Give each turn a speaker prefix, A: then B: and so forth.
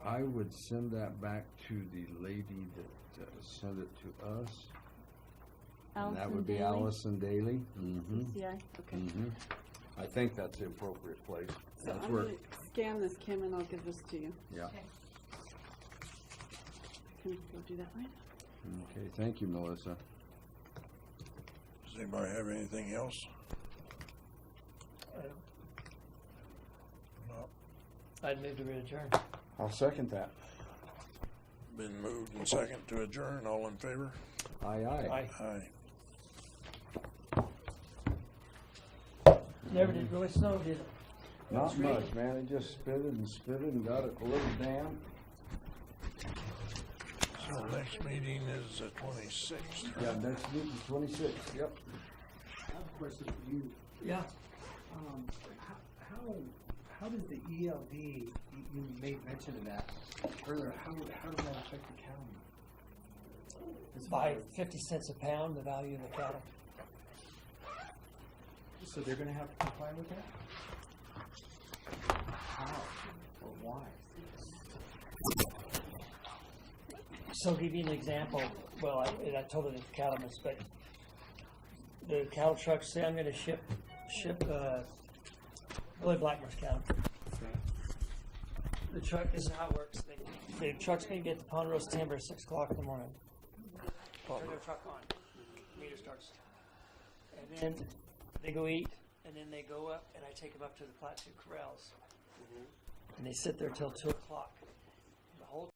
A: would send that back to the lady that uh, sent it to us. And that
B: Allison
A: would be
B: Daly?
A: Allison Daly. Mm-hmm,
B: Yeah, okay.
A: mm-hmm. I think that's the appropriate place.
B: So
A: That's
B: I'm
A: where,
B: gonna scan this, Kim, and I'll give this to you.
A: yeah.
B: Can you go do that right?
A: Okay, thank you, Melissa.
C: Does anybody have anything else? No.
D: I'd move to adjourn.
A: I'll second that.
C: Been moved and second to adjourn, all in favor?
A: Aye, aye.
D: I
C: Aye.
D: never did really snow, did it?
A: Not much, man. It just spitted and spitted and got it a little damp.
C: So next meeting is the twenty-sixth.
A: Yeah, next meeting, twenty-six, yep.
E: I have a question for you.
D: Yeah.
E: Um, how, how, how does the ELD, you you made mention of that earlier, how, how does that affect the county?
D: By fifty cents a pound, the value of the cattle.
E: So they're gonna have to comply with that? How or why?
D: So give you an example, well, I, and I told it the cattle inspector. The cattle trucks say I'm gonna ship, ship, uh, Billy Blackmer's cattle. The truck, this is how it works, they, the truck's gonna get to Ponderosa Timber at six o'clock in the morning. Turn their truck on, meter starts. And then they go eat, and then they go up, and I take them up to the Platte Two Corrals. And they sit there till two o'clock.